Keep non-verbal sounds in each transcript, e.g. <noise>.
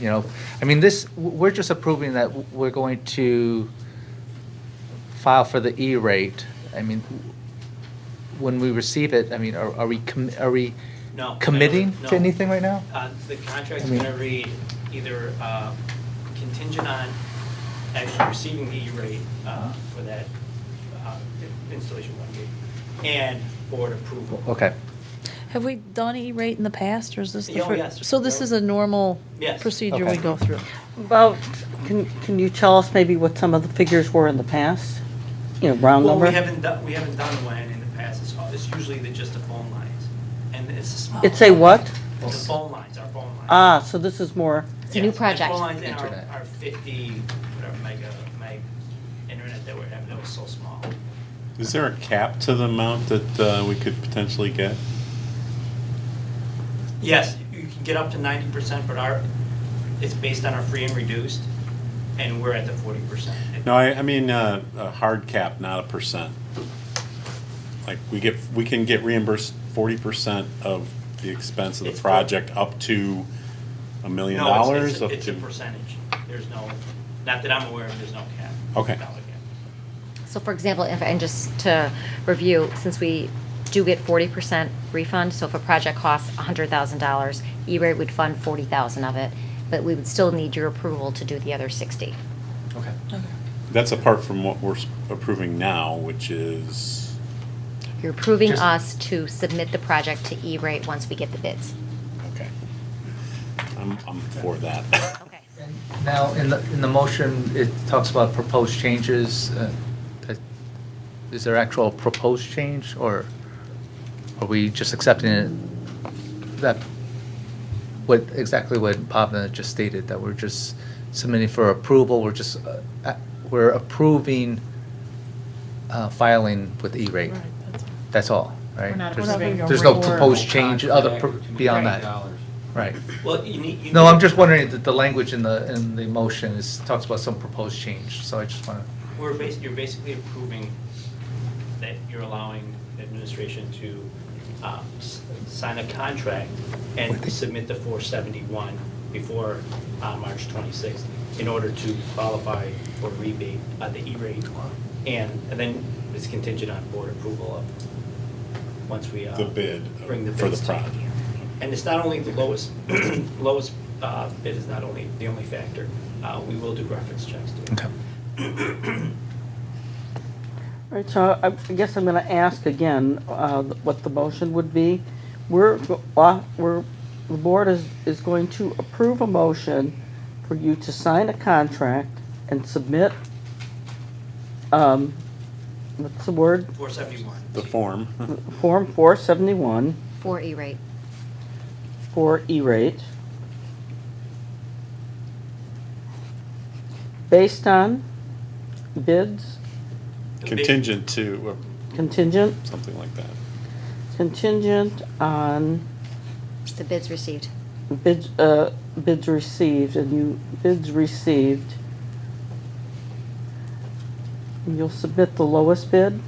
you know, I mean, this, we're just approving that we're going to file for the E-rate. I mean, when we receive it, I mean, are are we, commi- are we No, I don't- committing no. to anything right now? Uh, The contract's I mean- going to read either uh, contingent on actually receiving the E-rate uh, Uh-huh. for that uh, installation one gig and board approval. Okay, Have we done E-rate in the past, or is this the Yeah, oh, first? yes. So this is a normal Yes. procedure we Okay. go through? About, can, can you tell us maybe what some of the figures were in the past? You know, round Well, number? we haven't done, we haven't done one in the past. It's all- It's usually the- just the phone lines. And it's a small. It's a what? The phone lines, our phone lines. Ah, so this is more, It's a new Yes, the project. Phone lines and our- Internet. our 50, whatever, mega, meg internet that we're having, that was so small. Is there a cap to the amount that uh, we could potentially get? Yes, you can get up to ninety percent, but our, it's based on our free and reduced, and we're at the forty percent. No, I, I mean, uh, a hard cap, not a percent. Like, we get, we can get reimbursed forty percent of the expense of It's the for- project up to a million No, it's- dollars? it's- up It's a to- percentage. There's no, not that I'm aware of, there's no cap. Okay. Dollar cap. So for example, if, and just to review, since we do get forty percent refund, so if a project costs hundred thousand dollars, E-rate would fund forty thousand of it, but we would still need your approval to do the other sixty. okay. That's apart from what we're s- approving now, which is, You're approving Just- us to submit the project to E-rate once we get the bids. okay. I'm, I'm for that. Okay. And Now, in the, in the motion, it talks about proposed changes. uh, that- Is there actual proposed change, or are we just accepting it? That, what, exactly what Pavna just stated, that we're just submitting for approval, we're just, uh, uh, we're approving uh, filing with E-rate. That's all, right? We're not There's- approving a There's no reward. proposed change, other, pro- beyond Right. that, right? Well, you need. you No, need- I'm just wondering, the, the language in the, in the motion is, talks about some proposed change, so I just wanna, We're bas, you're basically approving that you're allowing administration to, um, s- sign a contract and submit the four seventy-one before, uh, March twenty-sixth in order to qualify for rebate, uh, the E-rate. And, and then it's contingent on board approval of, once we, uh. The bid Bring the for the bids to you. project. And it's not only the lowest, <clears throat> lowest, uh, bid is not only the only factor, uh, we will do reference checks too. okay. right, so I I guess I'm gonna ask again, uh, what the motion would be. We're, go- uh, we're, the board is, is going to approve a motion for you to sign a contract and submit, um, what's the word? Four seventy-one. The form. <laughs> Form four seventy-one. For E-rate. for E-rate based on bids Contingent to, or contingent, something like that. contingent on The bids received. bids, uh, bids received, and you, bids received. And you'll submit the lowest bid,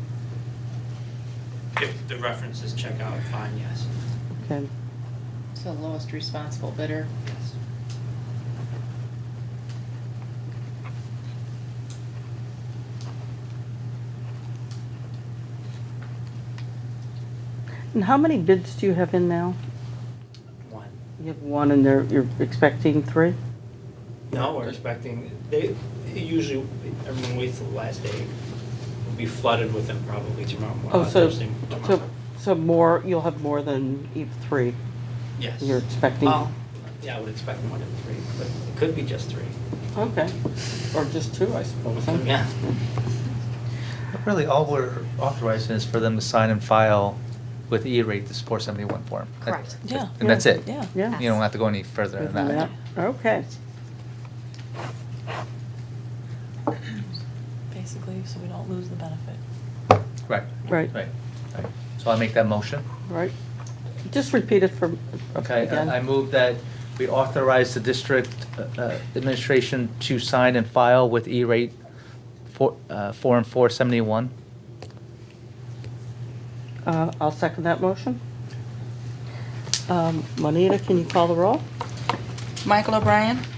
If the references check out, fine, yes. okay, So lowest responsible bidder. Yes. and how many bids do you have in now? One. You have one and there, you're expecting three? No, we're expecting, they, usually, everyone waits till the last day. We'll be flooded with them probably tomorrow, Oh, morning. so, Thursday, so, tomorrow. so more, you'll have more than e- three. Yes. you're expecting- Well, Yeah, I would expect more than three, but it could be just three. Okay, or just two, I suppose. huh? Yeah. But Really, all we're authorizing is for them to sign and file with E-rate this four seventy-one form. That- Correct. that- Yeah. And that's it. Yeah. Yeah. You don't have to go any further Good than that. map. Okay, Basically, so we don't lose the benefit. Right. Right. Right, right. So I make that motion. right. Just repeat it for, Okay, again. I I move that we authorize the district uh, uh, administration to sign and file with E-rate for, uh, Form four seventy-one. Uh, I'll second that motion. Um, Juanita, can you call the roll? Michael O'Brien.